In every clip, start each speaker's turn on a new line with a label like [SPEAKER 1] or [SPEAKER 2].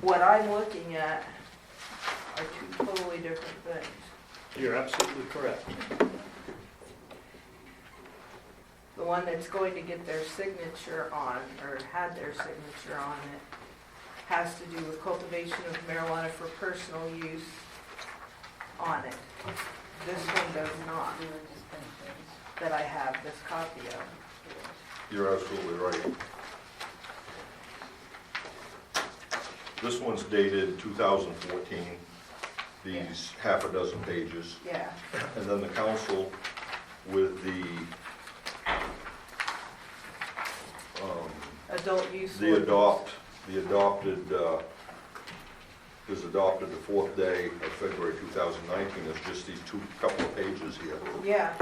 [SPEAKER 1] what I'm looking at are two totally different things.
[SPEAKER 2] You're absolutely correct.
[SPEAKER 1] The one that's going to get their signature on, or had their signature on it, has to do with cultivation of marijuana for personal use on it. This one does not, that I have this copy of.
[SPEAKER 3] You're absolutely right. This one's dated 2014, these half a dozen pages.
[SPEAKER 1] Yeah,
[SPEAKER 3] And then the council with the, um,
[SPEAKER 1] adult use.
[SPEAKER 3] the adopt, the adopted, uh, is adopted the fourth day of February 2019. It's just these two, couple of pages here.
[SPEAKER 1] Yeah,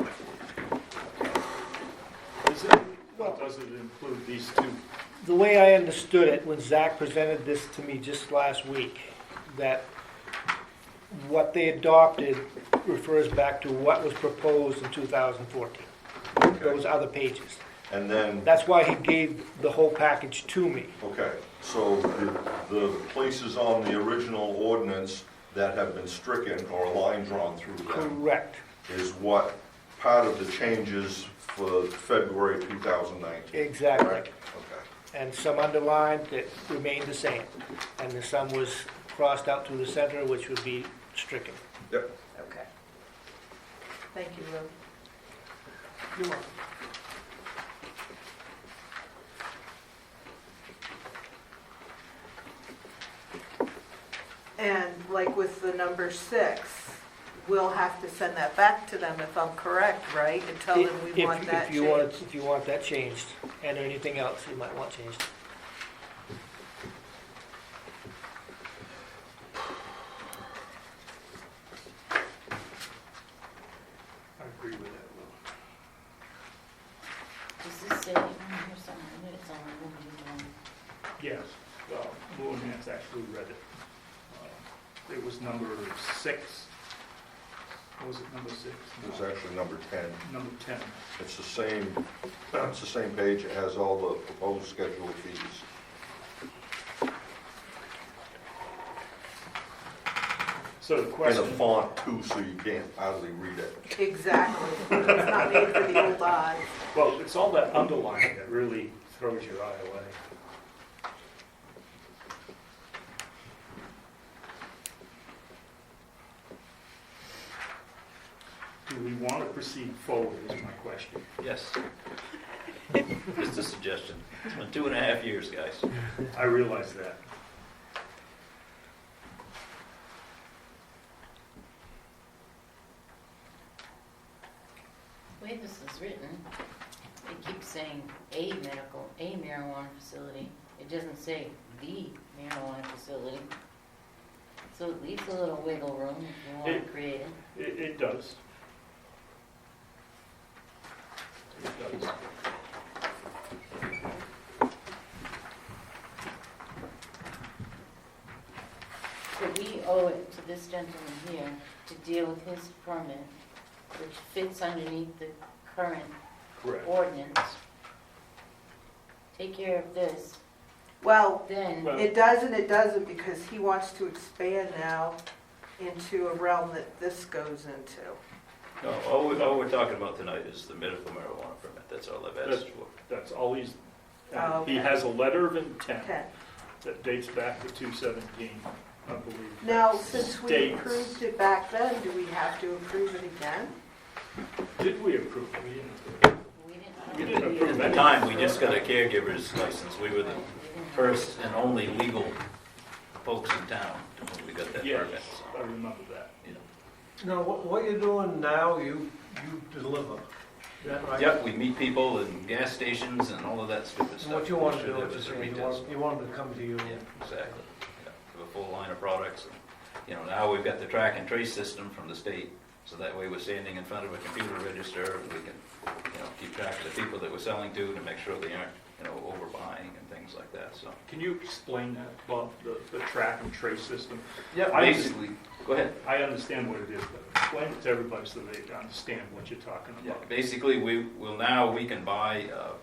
[SPEAKER 2] Is it, well, does it include these two?
[SPEAKER 4] The way I understood it, when Zach presented this to me just last week, that what they adopted refers back to what was proposed in 2014, those
[SPEAKER 3] Okay.
[SPEAKER 4] other pages.
[SPEAKER 3] And then
[SPEAKER 4] That's why he gave the whole package to me.
[SPEAKER 3] Okay, so the, the places on the original ordinance that have been stricken or a line drawn through them
[SPEAKER 4] Correct.
[SPEAKER 3] is what part of the changes for February 2019, right?
[SPEAKER 4] Exactly.
[SPEAKER 3] Okay,
[SPEAKER 4] And some underlined that remained the same. And then some was crossed out through the center, which would be stricken.
[SPEAKER 3] yep.
[SPEAKER 1] okay. Thank you, Lou.
[SPEAKER 4] You're welcome.
[SPEAKER 1] And like with the number six, we'll have to send that back to them if I'm correct, right? And tell them
[SPEAKER 4] If-
[SPEAKER 1] we want
[SPEAKER 4] if
[SPEAKER 1] that
[SPEAKER 4] you want-
[SPEAKER 1] changed.
[SPEAKER 4] If you want that changed, and anything else you might want changed.
[SPEAKER 2] I agree with that,
[SPEAKER 5] Does this say on here somewhere that it's on the woman doing?
[SPEAKER 2] Lou. Yes, well, Lou and Nancy actually read it. Uh, It was number six. What was it, number six?
[SPEAKER 3] It's actually number 10.
[SPEAKER 2] Number 10.
[SPEAKER 3] It's the same, it's the same page, it has all the proposed schedule of fees.
[SPEAKER 2] So the
[SPEAKER 3] And a
[SPEAKER 2] question,
[SPEAKER 3] font too, so you can't hardly read it.
[SPEAKER 1] Exactly. It's not made for the old eye.
[SPEAKER 2] well, it's all that underlining that really throws your eye away. Do we want to proceed forward is my question.
[SPEAKER 6] Yes. Just a suggestion. It's been two and a half years, guys.
[SPEAKER 2] I realize that.
[SPEAKER 5] The way this is written, it keeps saying a medical, a marijuana facility. It doesn't say the marijuana facility. So it leaves a little wiggle room if you want
[SPEAKER 2] It-
[SPEAKER 5] to create it.
[SPEAKER 2] It, it does. It does.
[SPEAKER 5] So we owe it to this gentleman here to deal with his permit, which fits underneath the current
[SPEAKER 2] Correct.
[SPEAKER 5] ordinance. Take care of this,
[SPEAKER 1] Well,
[SPEAKER 5] then.
[SPEAKER 2] Well-
[SPEAKER 1] it does and it doesn't because he wants to expand now into a realm that this goes into.
[SPEAKER 6] No, all, we- all we're talking about tonight is the medical marijuana permit. That's all I've asked for.
[SPEAKER 2] That's all he's,
[SPEAKER 1] Oh,
[SPEAKER 2] he
[SPEAKER 1] okay.
[SPEAKER 2] has a letter of intent
[SPEAKER 1] Okay.
[SPEAKER 2] that dates back to two seventeen, I believe.
[SPEAKER 1] Now,
[SPEAKER 2] That
[SPEAKER 1] since we
[SPEAKER 2] states-
[SPEAKER 1] approved it back then, do we have to approve it again?
[SPEAKER 2] Did we approve? We didn't approve.
[SPEAKER 5] We
[SPEAKER 2] We
[SPEAKER 5] didn't.
[SPEAKER 2] didn't approve
[SPEAKER 6] At the
[SPEAKER 2] any.
[SPEAKER 6] time, we just got a caregiver's license. We were the first and only legal folks in town when we got that
[SPEAKER 2] Yes,
[SPEAKER 6] permit.
[SPEAKER 2] I remember that.
[SPEAKER 7] No, what, what you're doing now, you, you deliver. Is that
[SPEAKER 6] so.
[SPEAKER 7] right?
[SPEAKER 6] Yep, we meet people in gas stations and all of that stupid
[SPEAKER 7] And
[SPEAKER 6] stuff.
[SPEAKER 7] What you want to
[SPEAKER 6] Should
[SPEAKER 7] do,
[SPEAKER 6] have
[SPEAKER 7] what you're
[SPEAKER 6] us a
[SPEAKER 7] saying, you
[SPEAKER 6] retail
[SPEAKER 7] want, you want them to come to you.
[SPEAKER 6] Yeah, exactly. Yeah, Have a full line of products. and, You know, now we've got the track and trace system from the state, so that way we're standing in front of a computer register and we can, you know, keep track of the people that we're selling to to make sure they aren't, you know, overbuying and things like that, so.
[SPEAKER 2] Can you explain that, Bob, the, the track and trace system?
[SPEAKER 6] Yeah.
[SPEAKER 2] I-
[SPEAKER 6] Basically, go ahead.
[SPEAKER 2] I understand what it is, but explain it to everybody so they understand what you're talking
[SPEAKER 6] Yeah,
[SPEAKER 2] about.
[SPEAKER 6] basically, we will now, we can buy, uh,